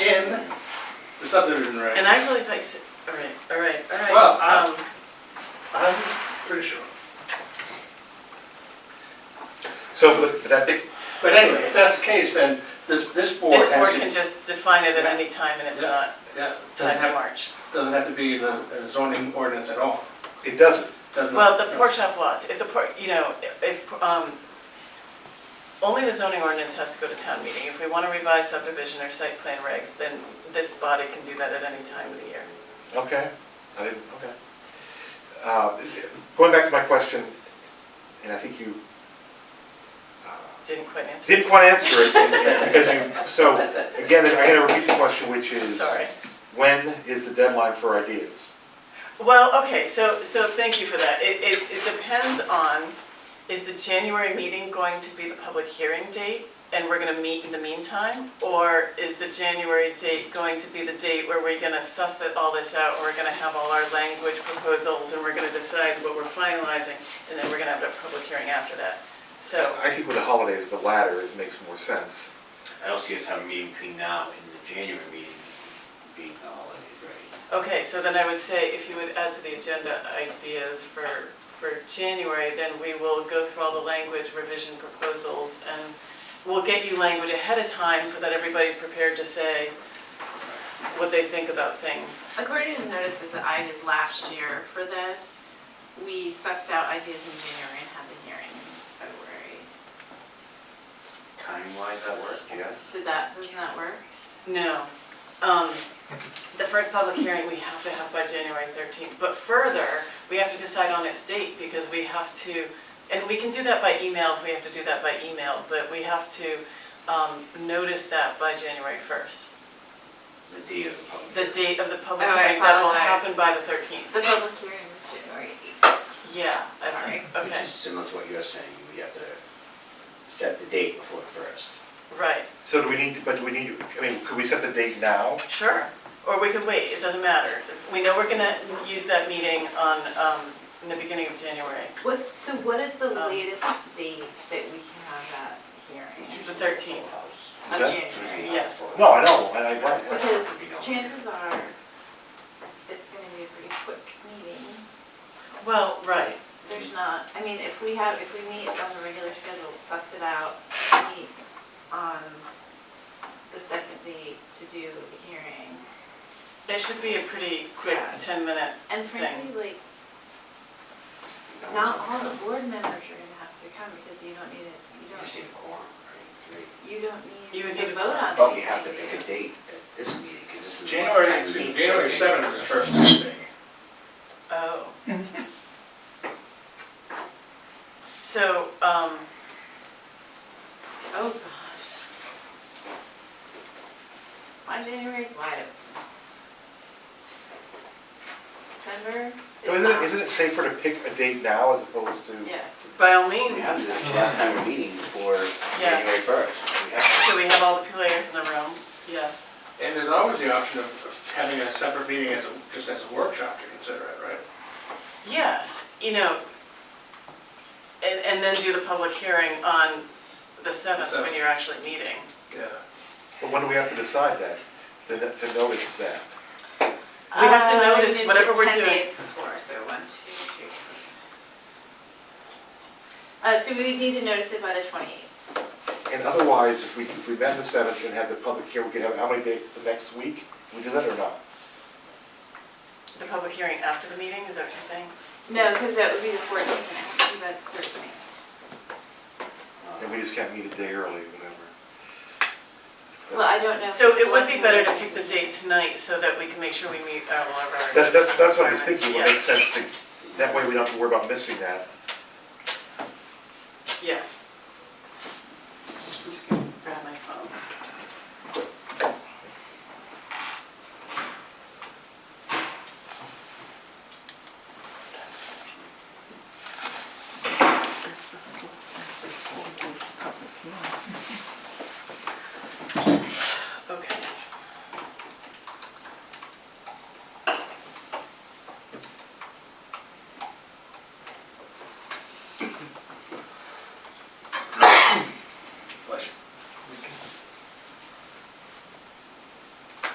subdivision regs. And I really think, s- all right, all right, all right. Well, uh, I- um, I'm pretty sure. So would that be, But anyway, if that's the case, then this, this board This board has, can to- just define it at any time and it's Yeah. not yeah, tied doesn't to have, March. doesn't have to be in a a zoning ordinance at all. it doesn't, Doesn't- Well, the pork chop lots, if the pork, you know, if, um, only the zoning ordinance has to go to town meeting. If we want to revise subdivision or site plan regs, then this body can do that at any time of the year. okay, I didn't, okay. Uh, Going back to my question, and I think you uh, Didn't quite answer. didn't quite answer it, because you, so, again, I gotta repeat the question, which is, Sorry. when is the deadline for ideas? Well, okay, so, so thank you for that. It, it, it depends on, is the January meeting going to be the public hearing date? And we're gonna meet in the meantime? Or is the January date going to be the date where we're gonna suss that, all this out? We're gonna have all our language proposals and we're gonna decide what we're finalizing? And then we're gonna have a public hearing after that. So, I think with the holidays, the latter is, makes more sense. I don't see us having a meeting between now and the January meeting being the holidays, right? okay, so then I would say if you would add to the agenda ideas for, for January, then we will go through all the language revision proposals and we'll get you language ahead of time so that everybody's prepared to say what they think about things. According to the notices that I did last year for this, we sussed out ideas in January and had the hearing in February. Time-wise, that works, yes? Did that, doesn't that work? No. Um, The first public hearing we have to have by January 13th, but further, we have to decide on its date because we have to, and we can do that by email if we have to do that by email, but we have to um, notice that by January 1st. The day of the public. The date of the public Oh, I hearing, that will apologize. happen by the The 13th. public hearing was January eighth. Yeah, I think, Which okay, is similar to what you're saying, we have to set the date before the first. right, So do we need, but do we need, I mean, could we set the date now? sure. Or we could wait, it doesn't matter. We know we're gonna use that meeting on, um, in the beginning of January, What's, so what is the Um, latest date that we can have that hearing? the 13th. Is Of that- January? Yes. No, I know, and I, right, right. Because chances are, it's gonna be a pretty quick meeting. Well, right, There's not, I mean, if we have, if we meet on a regular schedule, suss it out, meet on the second date to do the hearing. It should be a pretty quick Yeah. 10-minute And thing. frankly, like, not all the board members are gonna have to come because you don't need it, you You just need don't, a quorum, right? Three. you don't You would need need to a vote on it. But we have to pick a date at this meeting, because this is. the last January, time excuse we me, meet. January seventh is the first meeting. Oh. So, um, Oh, gosh. My January's wide open. December So is Isn't not. it, isn't it safer to pick a date now as opposed to? Yes. by all We means, have to, Mr. the last Chair. time we're meeting before Yes. January first. We have So we have all the players in the room, yes. And there's always the option of- of having a separate meeting as, a- just as a workshop to consider it, right? Yes, you know, and, and then do the public hearing on the 7th when Seventh. you're actually meeting. Yeah. But when do we have to decide that, to, to notice that? We have to Uh, notice we did whatever the we're Ten doing. days before, so one, two, three, four, five, six, seven, eight, nine, ten. Uh, so we would need to notice it by the twenty-eighth. And otherwise, if we, if we met the seventh and had the public hearing, we could have, how many days, the next week? Can we do that or not? The public hearing after the meeting, is that what you're saying? No, because that would be the fourteenth, and it has to be by the thirteenth. to, uh, And we just can't meet a day early, whatever. Well, I don't know. if So the it would be select better to board- pick the date tonight so that we can make sure we meet uh, all of our. That's, that's, that's what I was requirements. thinking, it Yes. makes sense to, that way we don't have to worry about missing that. Yes,